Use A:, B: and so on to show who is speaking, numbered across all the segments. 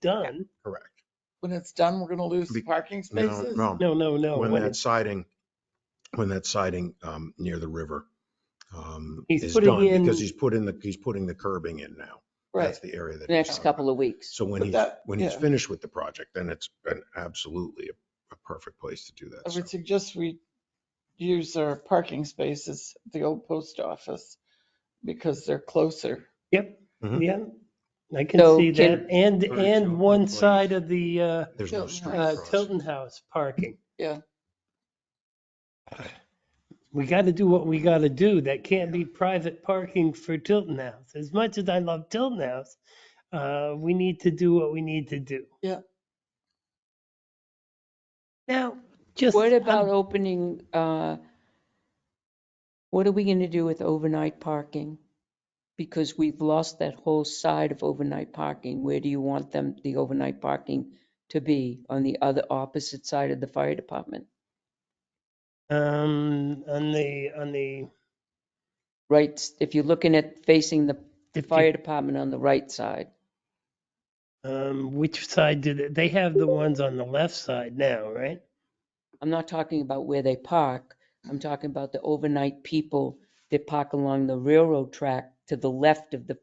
A: done,
B: Correct.
C: When it's done, we're gonna lose
B: Be-
C: parking
B: No,
C: spaces?
B: no,
A: no, no, no.
B: when
A: when
B: that siding, when that siding um, near the river um,
A: He's
B: is
A: putting
B: done, because
A: in-
B: he's putting the, he's putting the curbing in now.
C: Right.
B: That's the area that. he's
D: next
B: talking
D: couple
B: about.
D: of weeks.
B: So when
C: But
B: he's,
C: that-
B: when he's
C: yeah.
B: finished with the project, then it's an absolutely a- a perfect place to do
C: I
B: that.
C: would
B: so.
C: suggest we use our parking spaces, at the old post office, because they're closer.
B: Mhm.
A: Yeah, I can
D: So
A: see
D: can-
A: that. And,
B: Or
A: and
B: Tilton
A: one
B: Place.
A: side of the uh,
B: There's no
C: Tilton
A: uh,
B: street crossing.
A: Tilton House parking.
C: Yeah.
A: We got to do what we got to do. That can't be private parking for Tilton House. As much as I love Tilton House, uh, we need to do what we need to do.
C: Yeah.
A: Now, just. um,
D: What
A: I'm-
D: about opening, uh, what are we going to do with overnight parking? Because we've lost that whole side of overnight parking. Where do you want them, the overnight parking to be? On the other opposite side of the fire department?
A: Um, on the, on the,
D: Right, s- if you're looking at facing the
A: If you-
D: fire department on the right side.
A: um, which side do they, they have the ones on the left side now, right?
D: I'm not talking about where they park. I'm talking about the overnight people that park along the railroad track to the left of the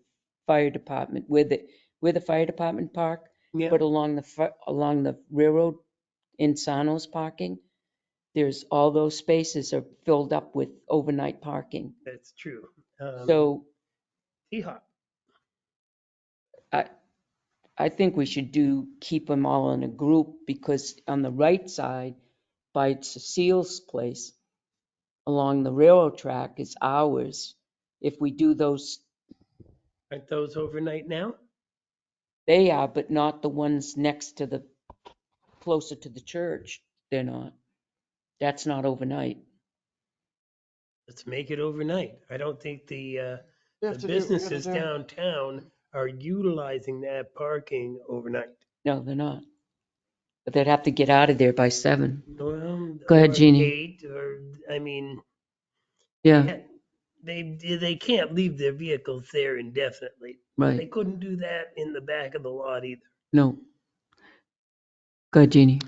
D: fire department, where the, where the fire department park,
A: Yeah.
D: but along the, fi- along the railroad in Sano's parking, there's, all those spaces are filled up with overnight parking.
A: That's true. Um,
D: So
A: Seahawk.
D: I think we should do, keep them all in a group, because on the right side, by Cecile's place, along the railroad track is ours. If we do those,
A: Aren't those overnight now?
D: they are, but not the ones next to the, closer to the church, they're not. That's not overnight.
A: Let's make it overnight. I don't think the, uh, the
C: We have to do what we gotta
A: businesses
C: do.
A: downtown are utilizing that parking overnight.
D: No, they're not. But they'd have to get out of there by seven.
A: Well,
D: Go ahead,
A: or
D: Jeannie. Uh.
A: Eight, or, I mean,
D: Yeah,
A: they, they can't leave their vehicles there indefinitely. They
D: right,
A: couldn't do that in the back of the lot either.
D: no. Go ahead, Jeannie.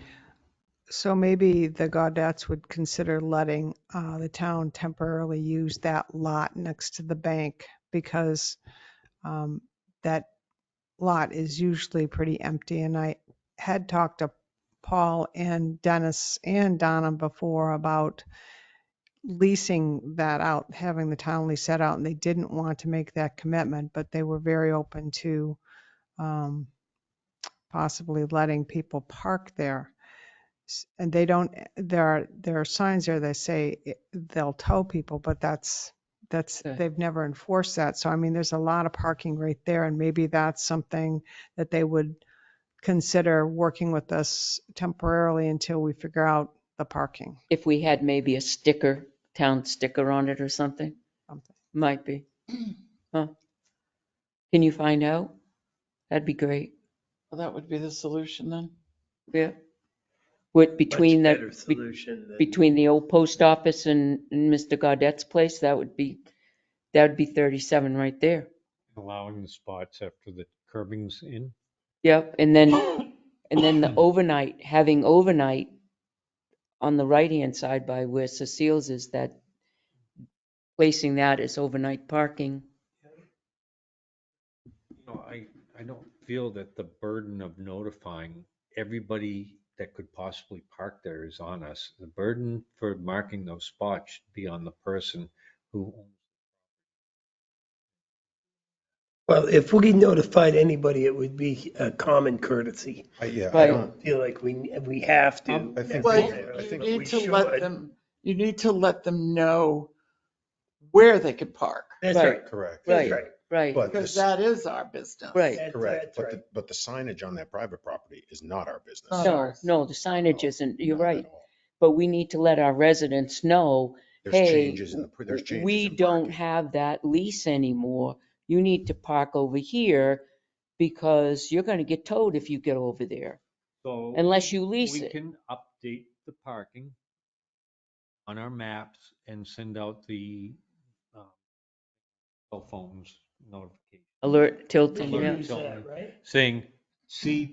E: So maybe the Gaudets would consider letting uh, the town temporarily use that lot next to the bank because um, that lot is usually pretty empty. And I had talked to Paul and Dennis and Donna before about leasing that out, having the town lease that out, and they didn't want to make that commitment, but they were very open to um, possibly letting people park there s- and they don't, eh, there are, there are signs there that say i- they'll tow people, but that's, that's,
D: Okay.
E: they've never enforced that. So I mean, there's a lot of parking right there and maybe that's something that they would consider working with us temporarily until we figure out the parking.
D: If we had maybe a sticker, town sticker on it or something?
E: something.
D: Might be. Huh? Can you find out? That'd be great.
C: Well, That would be the solution then.
D: Yeah. With,
A: Much
D: between
A: better
D: the, be-
A: Solution than.
D: between the old post office and and Mr. Gaudette's place, that would be, that would be 37 right there.
F: allowing the spots after the curbing's in.
D: Yep, and then, and then the overnight, having overnight on the right-hand side by where Cecile's is that, placing that as overnight parking.
F: No, I, I don't feel that the burden of notifying everybody that could possibly park there is on us. The burden for marking those spots should be on the person who,
A: Well, if we notified anybody, it would be a common courtesy.
B: I- Yeah, I
D: Right.
B: don't,
A: feel like we, we have to.
B: Um, I think
C: Well,
B: we-
C: you-
B: I
C: you
B: think
C: need
A: we
C: to
A: should.
C: let them, you need to let them know where they could park,
A: That's
D: Right.
A: right.
B: correct.
A: That's
D: Right.
A: right.
D: Right,
B: But this,
C: because that is our business.
D: right.
A: That's-
B: correct,
A: that's
B: but
A: right.
B: the, but the signage on that private property is not our business.
C: No,
D: No,
C: ours.
D: no, the signage
B: No,
D: isn't, you're
B: Not at
D: right,
B: all.
D: but we need to let our residents know,
B: There's
D: hey,
B: changes in the, there's changes.
D: we
B: in
D: don't
B: parking.
D: have that lease anymore. You need to park over here because you're gonna get towed if you get over there,
F: so
D: unless you lease
F: we
D: it.
F: can update the parking on our maps and send out the um, cell phones notification
D: Alert Tilton,
F: Alert
D: yeah.
A: Use that,
F: Tilton.
A: Right?
F: saying, see